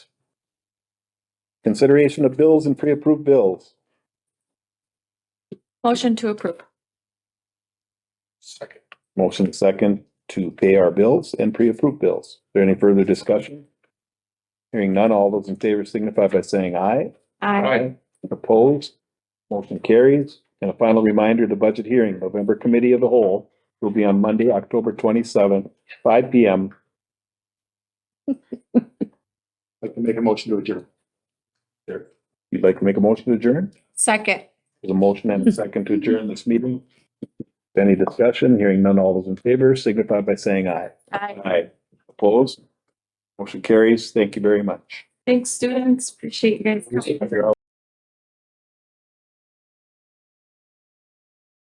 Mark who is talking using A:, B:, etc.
A: Consideration of bills and pre-approved bills.
B: Motion to approve.
C: Second.
A: Motion second to pay our bills and pre-approved bills. Is there any further discussion? Hearing none, all those in favor signify by saying aye.
B: Aye.
A: Opposed? Motion carries. And a final reminder, the budget hearing, November Committee of the Whole will be on Monday, October twenty-seventh, five P M.
C: Like to make a motion to adjourn.
A: You'd like to make a motion to adjourn?
B: Second.
A: There's a motion and a second to adjourn this meeting. Any discussion? Hearing none, all those in favor signify by saying aye.
B: Aye.
A: Aye. Opposed? Motion carries. Thank you very much.
B: Thanks, students. Appreciate you guys coming.